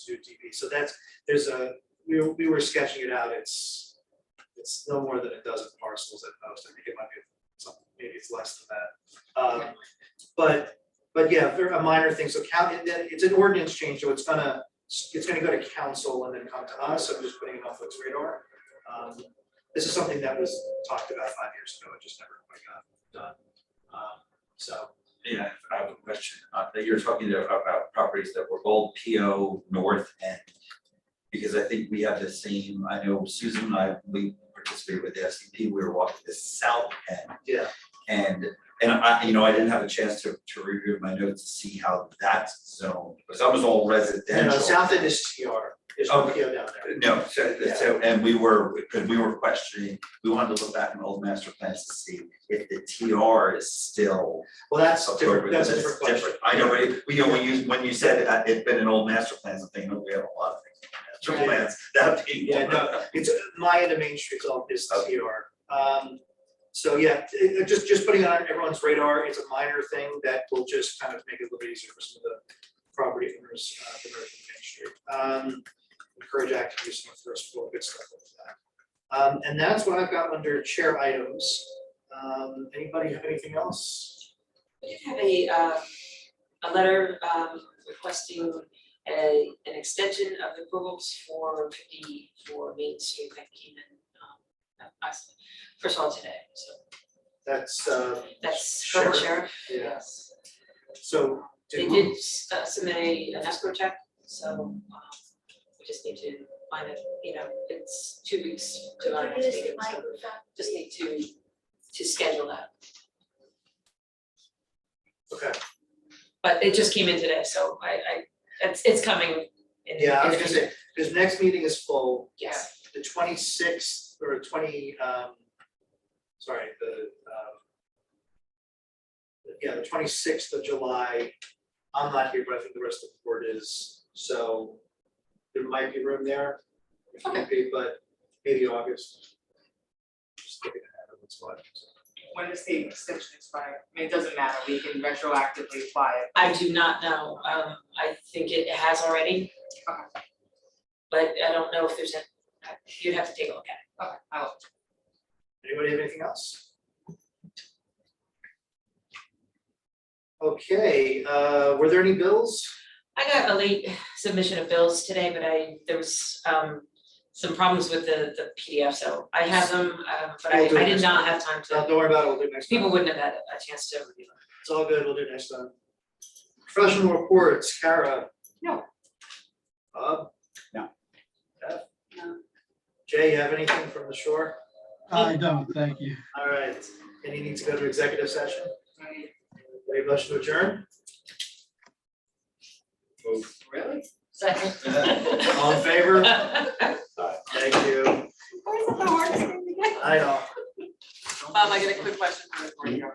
Zoo TV. So that's, there's a, we were, we were sketching it out, it's, it's no more than a dozen parcels at most, I think it might be something, maybe it's less than that. Um, But, but yeah, there are minor things, so count, and then it's an ordinance change, so it's gonna, it's gonna go to council and then come to us, so I'm just putting it on folks' radar. Um, This is something that was talked about five years ago, it just never quite got done. Um, So, Yeah, I have a question, uh, that you're talking there about properties that were both PO North End. Because I think we have the same, I know Susan and I, we participated with the SCP, we were walking the south end. Yeah. And, and I, you know, I didn't have a chance to, to review my notes to see how that's zoned, because that was all no, residential. no, uh, south end is TR, there's no Okay. PO down there. No, so, so, and we were, because we were questioning, we wanted to look back in old master plans to see if the TR is still Well, that's different, October, that's a it's different question. different. I know, but it- you know, when you, when you said that it'd been an old master plans, I'm thinking, oh, we have a lot of things, in Right. master plans, that'd be Yeah, one. no, it's uh, Maya to Main Street's all is Okay. TR. Um, so yeah, it- it- just, just putting it on everyone's radar, it's a minor thing that will just kind of make it a little bit easier for some of the property owners, uh, to merge with Main Street. Um, encourage active use of first floor, good stuff like that. Um, and that's what I've got under chair items. Um, anybody have anything else? We did have a, um, a letter, um, requesting a, an extension of the approvals for fifty, for Main Street that came in, um, us, first of all today, so That's, uh, that's current sheriff. yeah, Yes. so. They did uh, submit a, an escrow check, so, um, we just need to find it, you know, it's two weeks to our next meeting, so just need to, to schedule that. Okay, But it just came in today, so I, I, it's, it's coming in. yeah, I in was a gonna few say, because next meeting is full, Yes, the twenty-sixth or twenty, um, sorry, the, um, yeah, the twenty-sixth of July, I'm not here, but I think the rest of the board is, so there might be room there, if need be, but maybe August. Just looking ahead of what's going on. when does the extension expire? I mean, it doesn't matter, we can retroactively apply it. I do not know, um, I think it has already. Okay. But I don't know if there's a, you'd have to take a look at Okay, I'll, Anybody have anything else? Okay, uh, were there any bills? it. I got a late submission of bills today, but I, there was, um, some problems with the, the PDF, so I have them, um, but I, We'll do it I did next not have time No, to, Uh, Don't worry about it, we'll do it next time. people wouldn't have had a chance to review them. It's all good, we'll do it next time. Professional reports, Kara? No. Bob? No. Jeff? No. Jay, you have anything from the shore? I don't, thank you. All right, any need to go to executive session? I, Any motion to adjourn? really? Second. All in favor? Thank you. Where's the hardest thing to get? I know. Um, Mom, I got a quick question for you.